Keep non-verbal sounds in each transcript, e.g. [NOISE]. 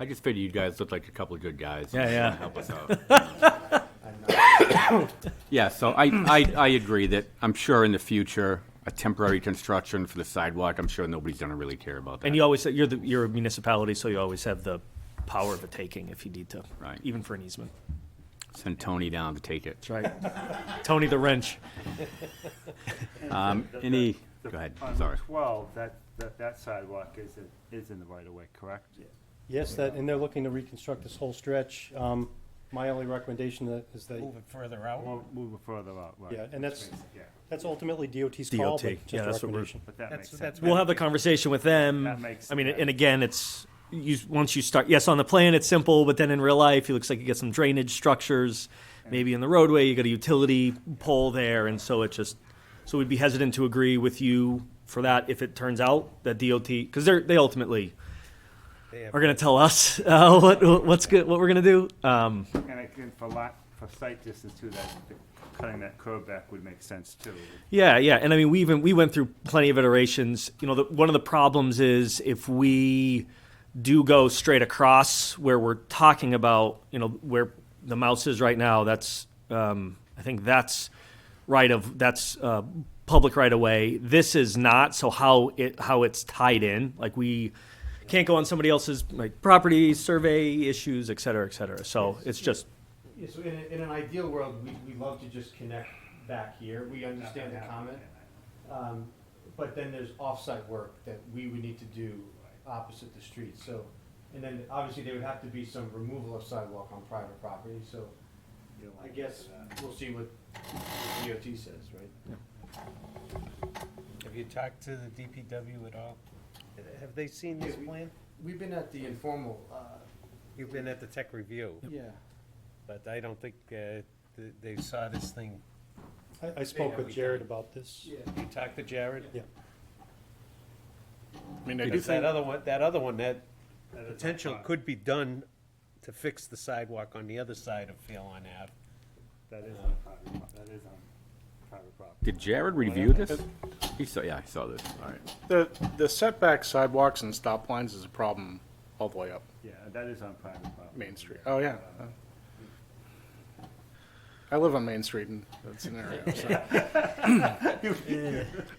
I just figured you guys looked like a couple of good guys. Yeah, yeah. Help us out. Yeah, so I, I, I agree that, I'm sure in the future, a temporary construction for the sidewalk, I'm sure nobody's gonna really care about that. And you always, you're the, you're a municipality, so you always have the power of a taking if you need to. Right. Even for an easement. Send Tony down to take it. That's right. [LAUGHS] Tony the wrench. Um, any, go ahead, On sorry. Route 12, that, that- that sidewalk is, in- is in the right of way, correct? Yes, that, and they're looking to reconstruct this whole stretch. Um, My only recommendation that- is that, Move it further out. Mo- Move it further out, right? yeah, and that's, Yeah, that's ultimately DOT's call, DOT, but just yeah, a that's what we're- recommendation. but that That's- makes sense. that's We'll have the conversation with them. That makes- I mean, and again, it's, you, once you start, yes, on the plan, it's simple, but then in real life, it looks like you get some drainage structures, maybe in the roadway, you got a utility pole there, and so it just, so we'd be hesitant to agree with you for that if it turns out that DOT, because they're, they ultimately They have- are gonna tell us, [LAUGHS] uh, what, what's good, what we're gonna do. Um, And again, for lot, for sight distance too, that, that cutting that curve back would make sense too. Yeah, yeah, and I mean, we even we went through plenty of iterations. You know, the, one of the problems is if we do go straight across where we're talking about, you know, where the mouse is right now. That's um, I think that's right of that's uh, public right away. This is not. So how it how it's tied in? Like we can't go on somebody else's like property survey issues, et cetera, et cetera. So it's just Yeah, so in, in an ideal world, we, we love to just connect back here, we understand the comment. Um, but then there's off-site work that we would need to do opposite the street, so, and then obviously there would have to be some removal of sidewalk on private property, so I guess we'll see what DOT says, right? Have you talked to the DPW at all? Have they seen this Yeah, we- plan? We've been at the informal, uh, You've been at the tech review, yeah, but I don't think uh, th- they saw this thing. I, I spoke with Jared about this. yeah. You talked to Jared? Yeah. I mean, I do That other one, that other one, that potential could be done to fix the sidewalk on the other side of Phelan Ave. That is on private, pro- that is on private property. Did Jared review this? He saw, yeah, I saw this, all right. The, the setback sidewalks and stop lines is a problem all the way up Yeah, that is on private property. Main Street. Oh, yeah. I live on Main Street in that scenario. so.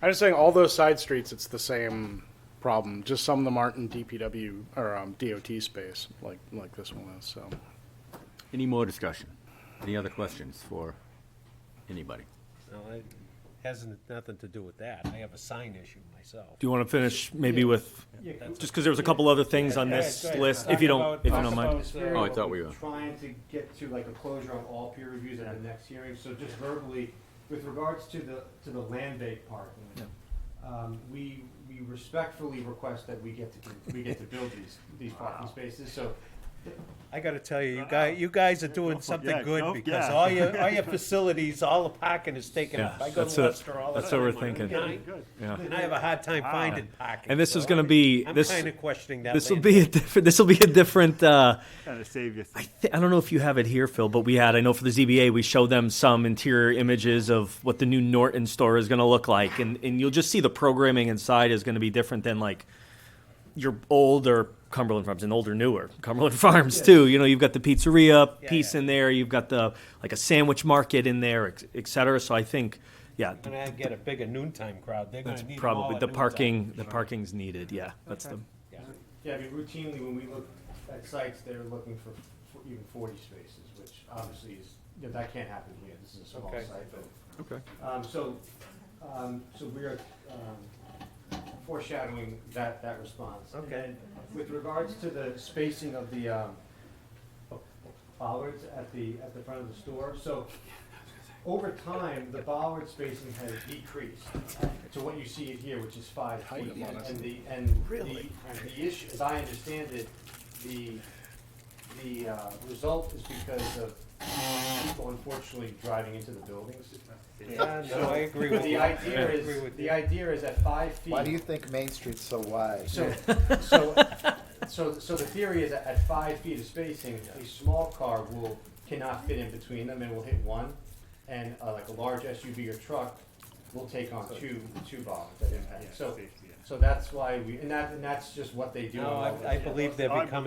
I'm just saying, all those side streets, it's the same problem. Just some of them aren't in DPW or um, DOT space like, like this one is, so. Any more discussion? Any other questions for anybody? No, it Hasn't nothing to do with that. I have a sign issue myself. do you want to finish maybe with just because there was a couple other things on this Yeah, go ahead. list, if you don't Talk if you about- don't mind. Oh, I thought we were- Trying to get to like a closure on all peer reviews at the next hearing, so just verbally, with regards to the, to the land bank part. Um, we, we respectfully request that we get to, we get to build these, these parking spaces, so I gotta tell you, you guys, you guys are doing something yeah, go- good because yeah. all your, all your facilities, all the parking is taken Yeah, up. I go that's to it. Leicester all the That's what we're time. thinking. Good. And I have a hard time finding parking. Ah. And this is so gonna be- I'm this- kinda questioning that. This will land be a bank. different. This will be a different. Uh, Kind of save you. I, th- I don't know if you have it here, Phil, but we had. I know for the ZBA, we showed them some interior images of what the new Norton store is going to look like, and and you'll just see the programming inside is going to be different than like your older Cumberland Farms and older newer Cumberland [LAUGHS] Farms too. You know, you've got the pizzeria Yeah, piece yeah. in there, you've got the like a sandwich market in there, et, et cetera. So I think, yeah, [LAUGHS] When I get a bigger noontime crowd, they're gonna that's need them all probably at the noontime. parking. The parking's needed. Yeah, that's the. Yeah. Yeah, I mean, routinely, when we look at sites, they're looking for for even forty spaces, which obviously is, you know, that can't happen here, this is a small Okay. site, but. Okay. Um, so, um, so we are, um, foreshadowing that, that response. And Okay. then With regards to the spacing of the, um, bollards at the, at the front of the store, so over time, the bollard spacing has decreased to what you see here, which is five feet. And the, and the, and the issue, as I understand it, the, the, uh, result is because of people unfortunately driving into the buildings. Yeah, no, I agree with The you. idea I agree is, with the you. idea is at five feet. Why do you think Main Street's so wide? So, so, so, so the theory is that at five feet of spacing, a small car will, cannot fit in between them and will hit one. And uh, like a large SUV or truck will take on two, two bombs that impact. So, so that's why we, and that, and that's just what they do. in No, Melbourne. I, I believe they're I'm- becoming